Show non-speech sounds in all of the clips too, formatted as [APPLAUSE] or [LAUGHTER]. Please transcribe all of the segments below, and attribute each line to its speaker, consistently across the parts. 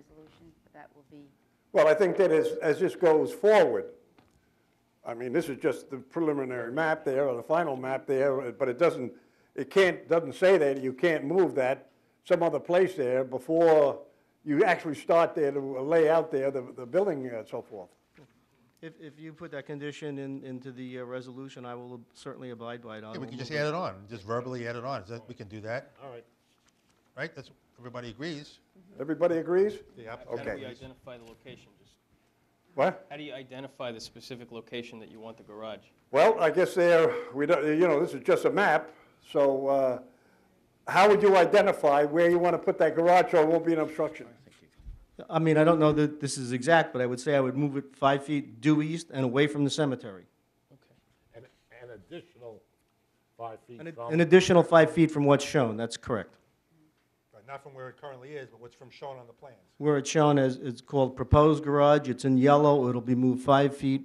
Speaker 1: resolution, but that will be,
Speaker 2: Well, I think that as, as this goes forward, I mean, this is just the preliminary map there, or the final map there, but it doesn't, it can't, doesn't say that you can't move that some other place there before you actually start there to lay out there the, the building and so forth.
Speaker 3: If, if you put that condition in, into the uh, resolution, I will certainly abide by it. I
Speaker 4: Yeah, we
Speaker 3: will
Speaker 4: can just
Speaker 3: move it.
Speaker 4: add it on, just verbally add it on. Is that- We can do that,
Speaker 5: All right.
Speaker 4: right? That's, everybody agrees?
Speaker 2: Everybody agrees?
Speaker 4: The app-
Speaker 5: How do
Speaker 2: Okay.
Speaker 5: we identify the location? Just,
Speaker 2: What?
Speaker 5: how do you identify the specific location that you want the garage?
Speaker 2: Well, I guess there, we don't, you know, this is just a map, so, uh, how would you identify where you want to put that garage so it won't be an obstruction?
Speaker 3: I mean, I don't know that this is exact, but I would say I would move it five feet due east and away from the cemetery.
Speaker 5: Okay.
Speaker 6: An, an additional five feet
Speaker 3: An ad-
Speaker 6: from.
Speaker 3: An additional five feet from what's shown, that's correct.
Speaker 4: Right, Not from where it currently is, but what's from shown on the plans.
Speaker 3: Where it's shown as, it's called proposed garage, it's in yellow, it'll be moved five feet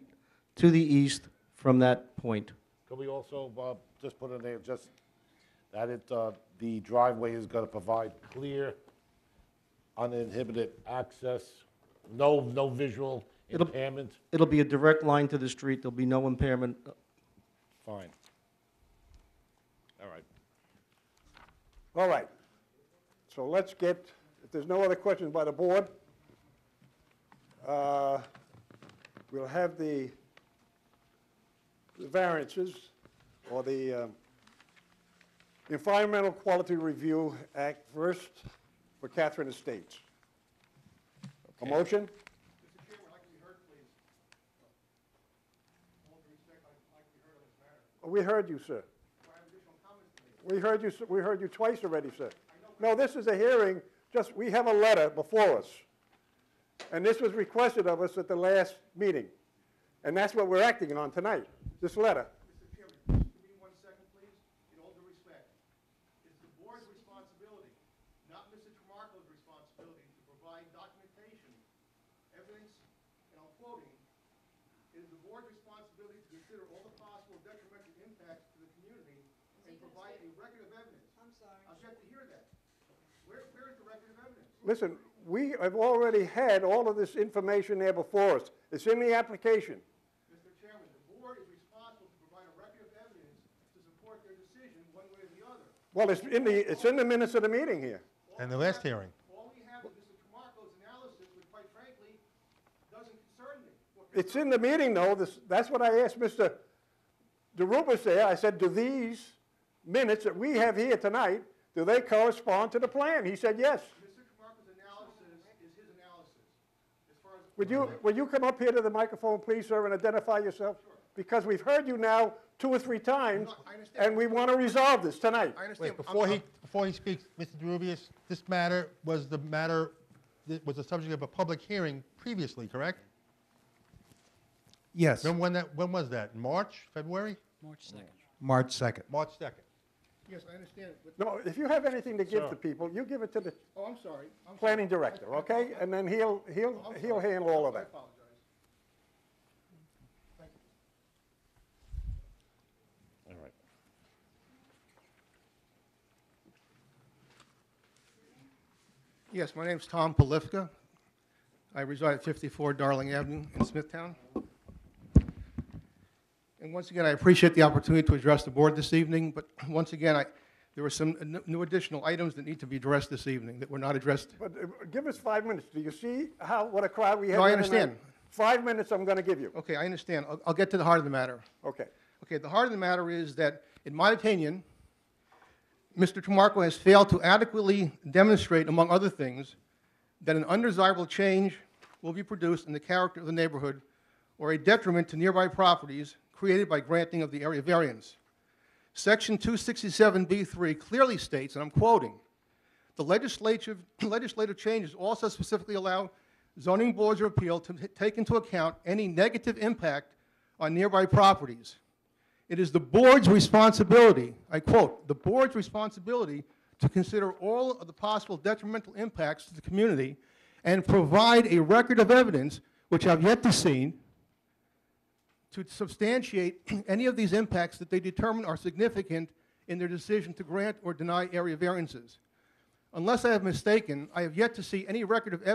Speaker 3: to the east from that point.
Speaker 6: Could we also, Bob, just put in there, just that it, uh, the driveway is gonna provide clear, uninhibited access, no, no visual
Speaker 3: It'll-
Speaker 6: impairment?
Speaker 3: It'll be a direct line to the street, there'll be no impairment.
Speaker 6: Fine. All right.
Speaker 2: All right. So let's get, if there's no other questions by the board, uh, we'll have the the variances or the um, Environmental Quality Review Act first for Catherine Estates. A motion? We heard you, sir. We heard you, s- we heard you twice already, sir. No, this is a hearing, just, we have a letter before us. And this was requested of us at the last meeting. And that's what we're acting on tonight, this letter.
Speaker 7: Mr. Chairman, just give me one second, please. In all due respect, it's the board's responsibility, not Mr. Tramarko's responsibility, to provide documentation, evidence, and I'm quoting, "It is the board's responsibility to consider all the possible detrimental impacts to the community and provide a record of evidence." I'm sorry. I've yet to hear that. Where, where is the record of evidence?
Speaker 2: Listen, we have already had all of this information there before us. It's in the application.
Speaker 7: Mr. Chairman, the board is responsible to provide a record of evidence to support their decision one way or the other.
Speaker 2: Well, it's in the, it's in the minutes of the meeting here.
Speaker 4: And the last hearing.
Speaker 7: All we have is Mr. Tramarko's analysis, which quite frankly, doesn't concern me. What
Speaker 2: It's in the meeting, though, this, that's what I asked Mr. DeRubis there. I said, do these minutes that we have here tonight, do they correspond to the plan? He said, yes.
Speaker 7: Mr. Tramarko's analysis is his analysis, as far as.
Speaker 2: Would you, would you come up here to the microphone, please, sir, and identify yourself? Because we've heard you now two or three times,
Speaker 7: No, I understand.
Speaker 2: and we want to resolve this tonight.
Speaker 7: I understand.
Speaker 4: Wait, before he, before he speaks, Mr. Derubius, this matter was the matter, that was the subject of a public hearing previously, correct?
Speaker 8: Yes,
Speaker 4: Remember when that, when was that? March, February?
Speaker 8: March 2nd.
Speaker 4: March 2nd.
Speaker 7: Yes, I understand, but,
Speaker 2: No, if you have anything to give to people, you give it to the
Speaker 7: oh, I'm sorry. I'm sorry.
Speaker 2: planning director, okay? And then he'll,
Speaker 7: Oh,
Speaker 2: he'll, he'll handle all of
Speaker 7: I
Speaker 2: that.
Speaker 7: apologize.
Speaker 6: All right.
Speaker 7: Yes, my name's Tom Polifka. I reside at 54 Darling Avenue in Smithtown. And once again, I appreciate the opportunity to address the board this evening, but once again, I, there were some n- new additional items that need to be addressed this evening that were not addressed.
Speaker 2: But uh, give us five minutes. Do you see how, what a crowd we have?
Speaker 7: No, I
Speaker 2: here tonight?
Speaker 7: understand.
Speaker 2: Five minutes I'm going to give you.
Speaker 7: Okay, I understand. I'll, I'll get to the heart of the matter.
Speaker 2: Okay.
Speaker 7: Okay, the heart of the matter is that, in my opinion, Mr. Tramarko has failed to adequately demonstrate, among other things, that an undesirable change will be produced in the character of the neighborhood or a detriment to nearby properties created by granting of the area variance. Section 267B3 clearly states, and I'm quoting, "The legislative, [CLEARS THROAT] legislative changes also specifically allow zoning boards of appeal to t- take into account any negative impact on nearby properties. It is the board's responsibility, I quote, "the board's responsibility to consider all of the possible detrimental impacts to the community and provide a record of evidence, which I've yet to see, to substantiate [CLEARS THROAT] any of these impacts that they determine are significant in their decision to grant or deny area variances. Unless I have mistaken, I have yet to see any record of evidence